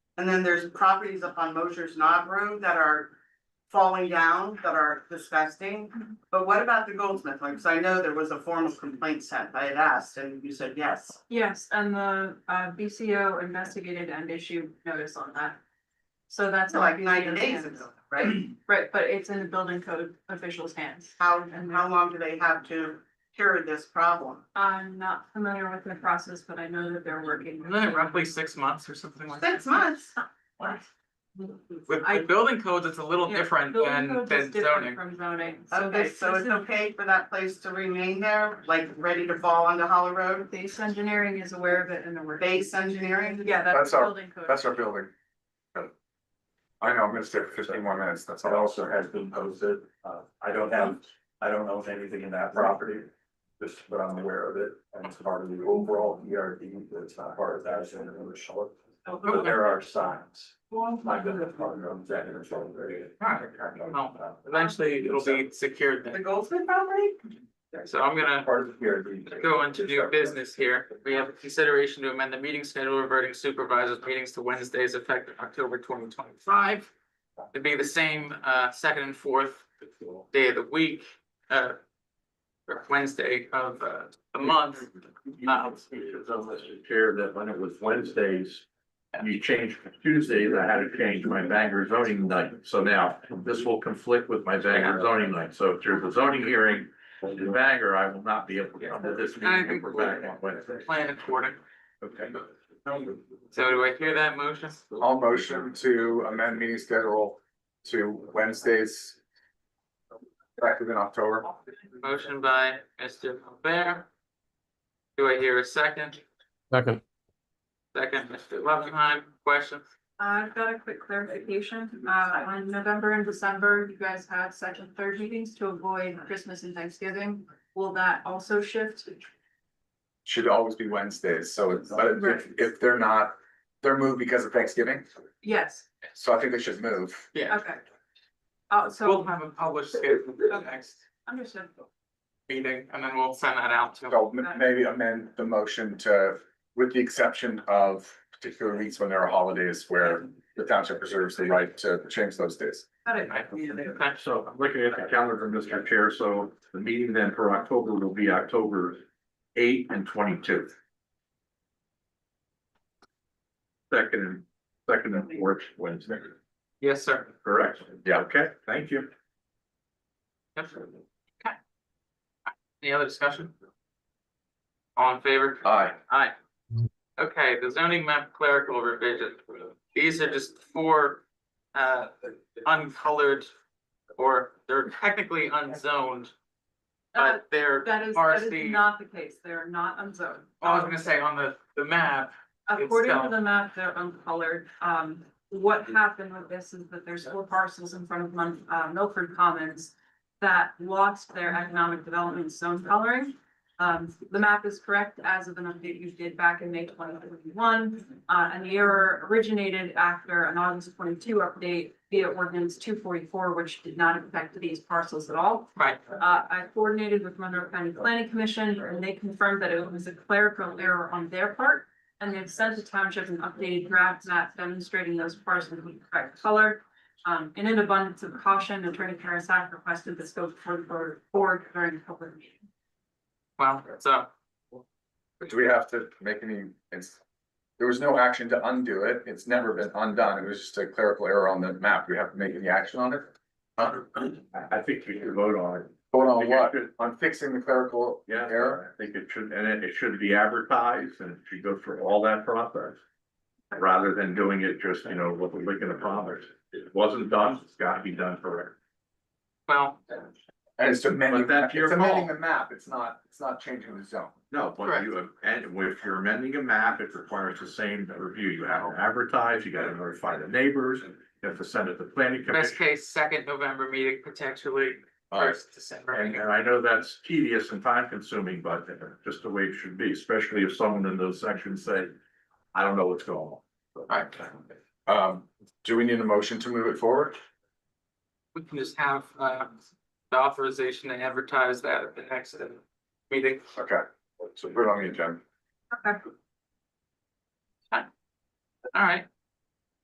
And then there's properties up on Mosher's Knob Road that are falling down, that are disgusting. But what about the Goldsmith? Like, so I know there was a formal complaint sent, I had asked, and you said yes. Yes, and the uh BCO investigated and issued notice on that. So that's. So like in the ninety BCO's days hands. ago, right? Right, but it's in the building code official's hands. How, and how long do they have to cure this problem? I'm not familiar with the process, but I know that they're working. Isn't it roughly six months or something like that? Six months. With, I- with building codes, it's a little Yeah, different building than, codes is than different zoning. From zoning. Okay, this- so this it's is- okay for that place to remain there, like ready to fall onto Hollow Road? Base engineering is aware of it and they're working. Base engineering? Yeah, that's That's our- building code. That's our building. I know, I'm gonna stay for fifteen more minutes, that's That all. also has been posted, uh, I don't have, I don't own anything in that property, just but I'm aware of it, and it's part of the overall ERD, that's not part of that, it's in the short. But there are signs, my business partner owns that in the short area. Alright, well, Eventually, it'll be secured The then. Goldsmith property? So I'm gonna Part of the E ERD. go into new business here. We have a consideration to amend the meeting schedule reverting supervisors' meetings to Wednesdays effective October twenty twenty-five. To be the same, uh, second and fourth day of the week, uh, or Wednesday of, uh, the month. Chair, that when it was Wednesdays, you changed from Tuesdays, I had to change my Bangor zoning night. So now this will conflict with my Bangor zoning night. So if there's a zoning hearing in Bangor, I will not be able to come to this I meeting. think if we're back on we're Wednesday. plan according. Okay. So do I hear that motion? I'll motion to amend meeting schedule to Wednesdays. Effective in October. Motion by Mr. Albert. Do I hear a second? Second, Second, Mr. Loveenheim, questions? I've got a quick clarification. Uh, on November and December, you guys have second, third meetings to avoid Christmas and Thanksgiving. Will that also shift? Should always be Wednesdays, so it's, but if, if they're not, they're moved because of Thanksgiving, Yes, so I think they should move. Yeah, okay. Oh, we'll so have a published schedule for the next understood. meeting and then we'll send that out to. So m- maybe amend the motion to, with the exception of particular weeks when there are holidays where the township preserves the right to change those days. Got it. Okay. So I'm looking at the calendar, Mr. Chair, so the meeting then for October will be October eight and twenty-two. Second, and second and fourth Wednesday, Yes, sir. correct? Yeah, okay, thank you. Yep. Okay. Any other discussion? All in favor? Aye. Aye. Okay, the zoning map clerical revision. These are just four uh uncolored or they're technically unzoned. Uh, But they're, That is, that RC. is not the case. They're not unzoned. Oh, I was gonna say on the the map, According to itself. the map, they're uncolored. Um, what happened with this is that there's four parcels in front of Mon- uh, Milford Commons that lost their economic development zone coloring. Um, the map is correct as of an update you did back in May twenty twenty-one. Uh, and the error originated after an August twenty-two update via ordinance two forty-four, which did not affect these parcels at all. right, Uh, I coordinated with Monroe County Planning Commission and they confirmed that it was a clerical error on their part. And they've sent the township an updated draft map demonstrating those parcels with correct color. Um, in an abundance of caution, Attorney Karasak requested this go before the board- board during the public meeting. well, so. Do we have to make any, it's, there was no action to undo it, it's never been undone, it was just a clerical error on the map, we have to make any action on it? Uh, I, I think we should vote on it. Vote on what, on fixing the clerical Yeah, error? I think it should, and it- it should be advertised and it should go through all that process. Rather than doing it just, you know, with a lick in the promise. It wasn't done, it's gotta be done correct. Well, And it's But amending, that's your it's amending call. the map, it's not, it's not changing the zone. No, but you, and if you're amending a map, it requires the same review. You have to advertise, you gotta notify the neighbors, you have to send it to planning best commission. case, second November meeting, potentially Alright, first And, uh, December. and I know that's tedious and time consuming, but uh, just the way it should be, especially if someone in those sections say, I don't know what's going on. Alright. um, do we need a motion to move it forward? We can just have uh the authorization to advertise that at the next uh, meeting. Okay, so put it on the agenda. Okay. All right,